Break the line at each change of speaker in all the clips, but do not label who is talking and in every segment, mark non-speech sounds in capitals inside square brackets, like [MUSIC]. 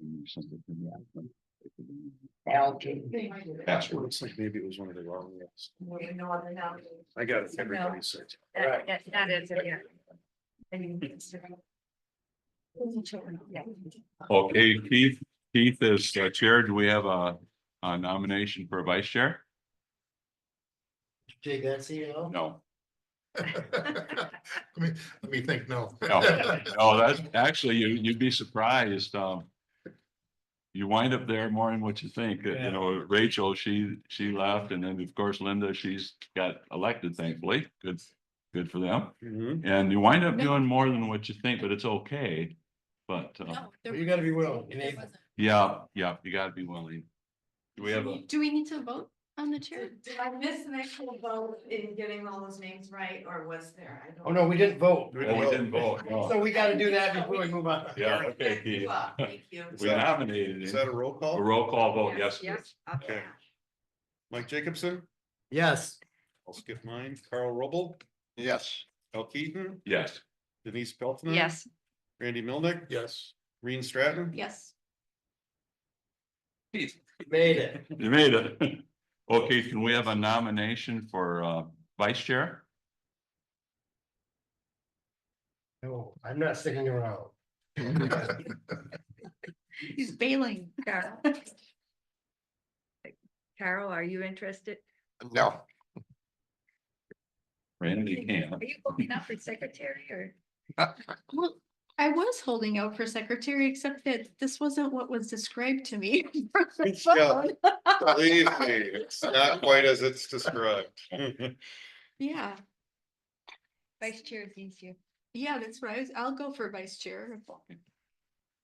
Oh,
Algae.
That's
It looks like maybe it was one of the wrong ones. I got everybody search.
Right.
That, that- that is, it, yeah. I mean, yeah.
Okay, Keith, Keith is uh, chair. Do we have a a nomination for vice chair?
Jay Garcia.
No,
Let me, let me think, no.
no, no, that's Oh, actually, you, you'd be surprised, um. You wind up there more than what you think, you know, Rachel, she, she left and then of course Linda, she's got elected thankfully, good, good for them.
You
Mm-hmm.
And you wind up doing more than what you think, but it's okay. But, uh,
gotta be willing and able.
yeah, yeah, you gotta be willing. Do we have a?
Do we need to vote on the chair?
Did did I miss an actual vote in getting all those names right, or was there? I don't-
Oh, no, we didn't vote.
Oh, we didn't vote, no.
So we gotta do that before we move on.
Yeah, okay,
Thank
Keith.
you, uh, thank you.
We nominated
Is
him.
that a roll
A
call?
roll call vote, yes.
Yes, up
Okay.
there.
Mike Jacobson,
Yes.
I'll skip mine, Carl Rubble,
Yes.
Al Keaton,
Yes.
Denise Pelton.
Yes.
Randy Milnick,
Yes.
Reen Stratton.
Yes.
Made it.
You made it. [LAUGHS] Okay, can we have a nomination for uh vice chair?
No, I'm not sticking around.
He's bailing.
Carol. [LAUGHS] Carol, are you interested?
No.
Randy
Are
can.
you looking up for secretary or?
Well, I was holding out for secretary, except that this wasn't what was described to me. [LAUGHS] from the
Yeah.
phone.
Believe me, it's [LAUGHS] not quite as it's described. [LAUGHS]
Yeah,
Vice chair is easier.
yeah, that's right. I was- I'll go for vice chair.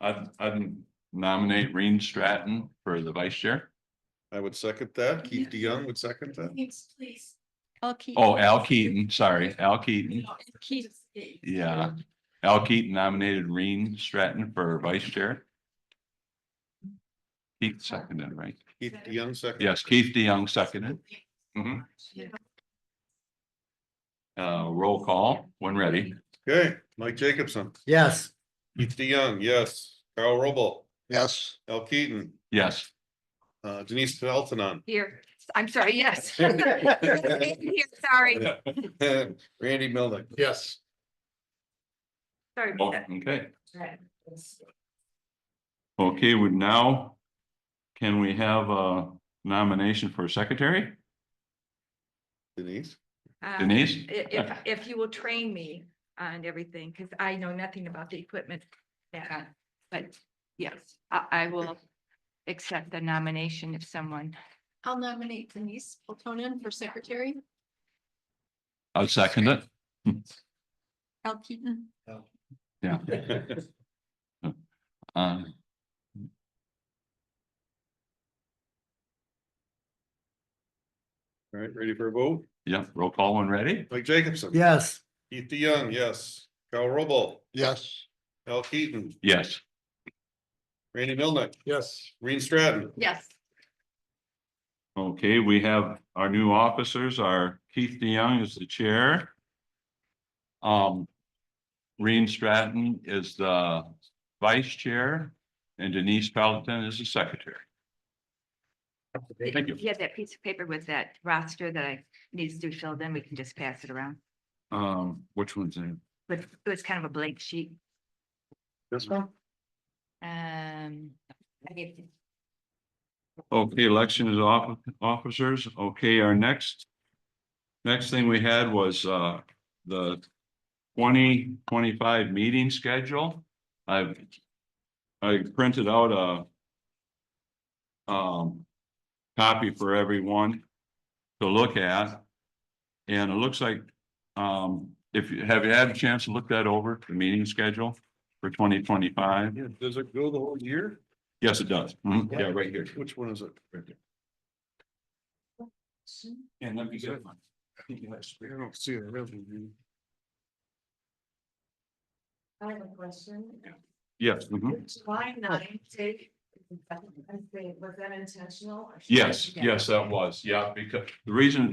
I'd I'd nominate Reen Stratton for the vice chair.
I would second that. Keith DeYoung would second that.
Thanks, please. I'll keep.
Oh, Al Keaton, sorry, Al Keaton.
Keep.
Yeah. Al Keaton nominated Reen Stratton for vice chair. Keith seconded, right?
Keith DeYoung second.
Yes, Keith DeYoung seconded. Mhm. Uh, roll call when ready.
Okay, Mike Jacobson,
Yes.
Keith DeYoung, yes. Carl Rubble,
Yes.
Al Keaton,
Yes.
uh, Denise Pelton.
Here, I'm sorry, yes. [LAUGHS]
Here,
Sorry,
[LAUGHS] Randy Milnick.
Yes.
sorry.
Oh, Okay. Okay, we now, can we have a nomination for secretary?
Denise. [LAUGHS]
Oh, Denise?
If, Um, if, if you will train me on everything, because I know nothing about the equipment. Yeah, but yes, I, I will accept the nomination if someone.
I'll nominate Denise Platonen for secretary,
I'll second it.
Al Keaton.
Yeah. Um,
All right, ready for a vote?
yeah, roll call when ready.
Mike Jacobson.
[LAUGHS] Yes.
Keith DeYoung, yes. Carl Rubble,
Yes.
Al Keaton,
Yes.
Randy Milnick,
Yes.
Reen Stratton.
Yes.
Okay, we have our new officers, our Keith DeYoung is the chair. Um, Reen Stratton is the vice chair and Denise Pelton is the secretary. Thank you.
If you have that piece of paper with that roster that I needs to fill, then we can just pass it around.
Um, which one's in?
But it was kind of a blank sheet.
This one?
Um. I gave it-
Okay, election is off, officers. Okay, our next. Next thing we had was uh the twenty twenty-five meeting schedule. I've. I printed out a. Um. Copy for everyone to look at. And it looks like, um, if you have you had a chance to look that over, the meeting schedule for twenty twenty-five?
Yeah, does it go the whole year?
Yes, it does. Mhm. Yeah, right here.
Which one is it?
And let me
get
one.
I don't see it really.
I have a question.
Yes, mhm.
July ninth date, was that intentional? or should I
yes,
forget?
yes, that was, yeah, because the reason